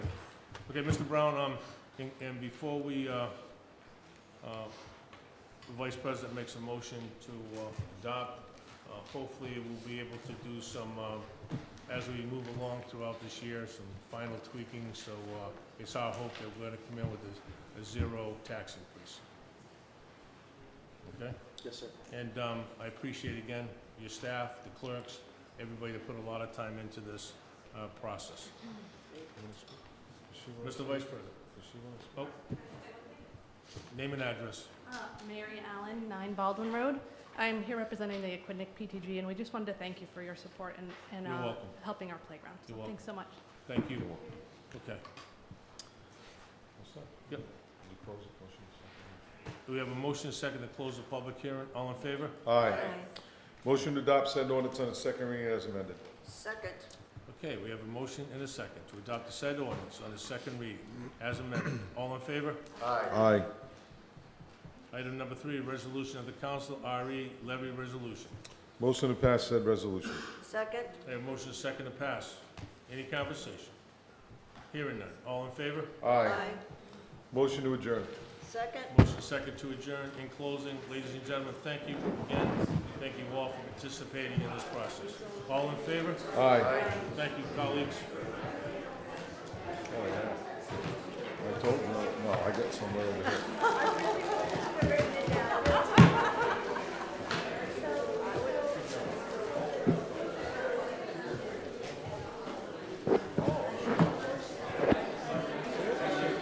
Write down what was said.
Okay, Mr. Brown, um, and, and before we, uh, uh, the Vice President makes a motion to, uh, adopt, uh, hopefully we'll be able to do some, uh, as we move along throughout this year, some final tweaking, so, uh, it's our hope that we're gonna come in with a, a zero tax increase. Okay? Yes, sir. And um, I appreciate again your staff, the clerks, everybody that put a lot of time into this uh, process. Mr. Vice President. Oh. Name and address. Uh, Mary Allen, 9 Baldwin Road. I'm here representing the Aquidneck PTG, and we just wanted to thank you for your support and, and You're uh, welcome. helping our playground. So You're welcome. Thanks so much. Thank you. Okay. Yep. Do we have a motion and second to close the public hearing? All in favor? Aye. Motion to adopt said ordinance on its second reading as amended. Second. Okay, we have a motion and a second to adopt the said ordinance on the second reading as amended. All in favor? Aye. Aye. Item number three, resolution of the council, RE levy resolution. Motion to pass said resolution. Second. I have motion second to pass. Any conversation? Hearing none. All in favor? Aye. Motion to adjourn. Second. Motion second to adjourn. In closing, ladies and gentlemen, thank you again. Thank you all for participating in this process. All in favor? Aye. Thank you, colleagues. I told you, no, I got somewhere over here.